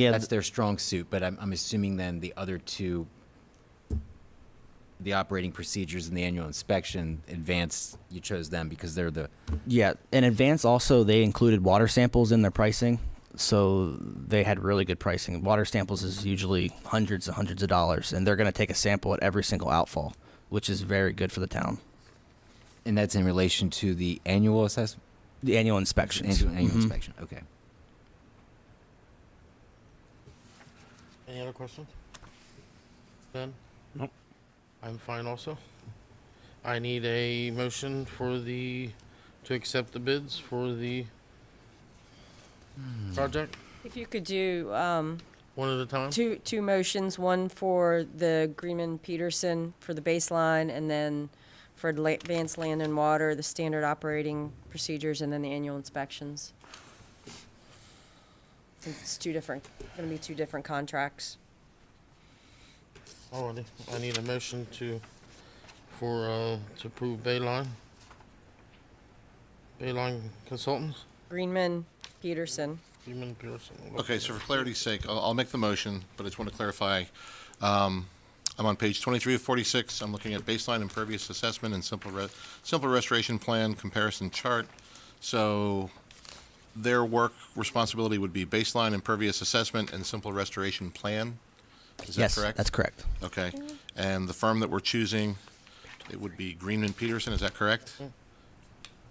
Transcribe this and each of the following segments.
Yeah, That's th- their strong suit, but I'm, I'm assuming then the other two, the operating procedures and the annual inspection, advanced, you chose them because they're the, yeah. In advance, also they included water samples in their pricing, so they had really good pricing. Water samples is usually hundreds and hundreds of dollars, and they're going to take a sample at every single outfall, which is very good for the town. and that's in relation to the annual assessment? The annual inspections. Annual, annual Mhm. inspection, okay. Any other questions? Ben? Nope. I'm fine also. I need a motion for the, to accept the bids for the project, If you could do um, one at a time? two, two motions, one for the Greenman Peterson for the baseline, and then for la- advanced land and water, the standard operating procedures, and then the annual inspections. Since it's two different, gonna be two different contracts. Alrighty, Oh, I need a motion to, for, uh, to approve Bayline. Bayline Consultants, Greenman Peterson. Freeman Pearson. Okay, so for clarity's sake, I'll, I'll make the motion, but I just want to clarify. um, I'm on page 23 of 46. I'm looking at baseline impervious assessment and simple, re- simple restoration plan comparison chart. So their work responsibility would be baseline impervious assessment and simple restoration plan. Is that yes, correct? that's correct. Okay. And the firm that we're choosing, it would be Greenman Peterson, is that correct?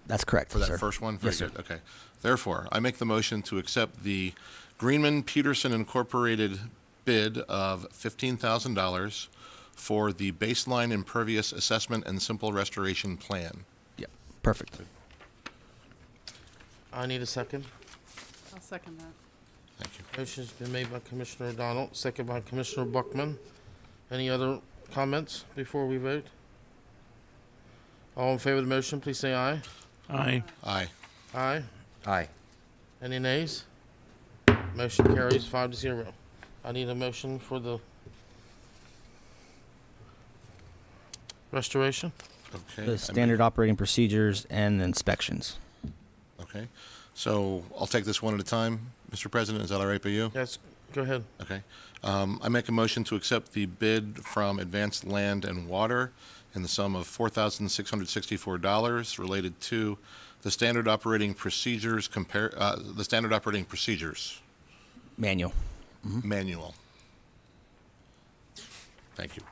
That's correct For that sir. first one? Yes, sir. Very good. Okay. Therefore, I make the motion to accept the Greenman Peterson Incorporated bid of $15,000 for the baseline impervious assessment and simple restoration plan. Yeah, perfect. I need a second. I'll second that. Thank you. Motion's been made by Commissioner O'Donnell, second by Commissioner Buckman. Any other comments before we vote? All in favor of the motion, please say aye. Aye. Aye. Aye. Aye. Any nays? Motion carries five to zero. I need a motion for the restoration. Okay. I The make- standard operating procedures and inspections. Okay. So I'll take this one at a time. Mr. President, is that all right by you? Yes, go ahead. Okay. Um, I make a motion to accept the bid from Advanced Land and Water in the sum of $4,664 related to the standard operating procedures compare, uh, the standard operating procedures Manual. manual. Thank you.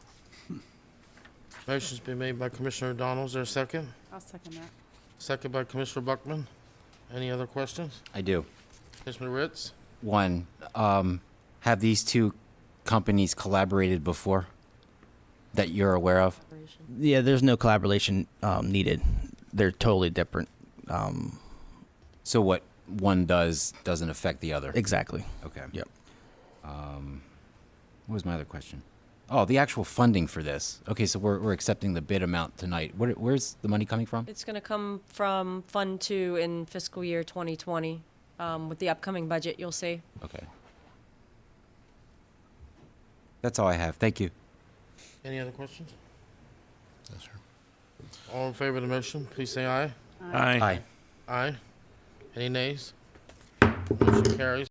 Motion's been made by Commissioner O'Donnell. Is there a second? I'll second that. Second by Commissioner Buckman. Any other questions? I do. Commissioner Ritz? One, um, have these two companies collaborated before that you're aware of? Yeah, there's no collaboration um, needed. They're totally different. Um, So what one does doesn't affect the other? exactly. Okay. Yep. Um, what was my other question? Oh, the actual funding for this. Okay, so we're, we're accepting the bid amount tonight. Where, where's the money coming from? It's gonna come from Fund Two in fiscal year 2020. Um, With the upcoming budget, you'll see. Okay. That's all I have. Thank you. Any other questions? Yes, sir. All in favor of the motion, please say aye. Aye. Aye. Any nays? Motion carries.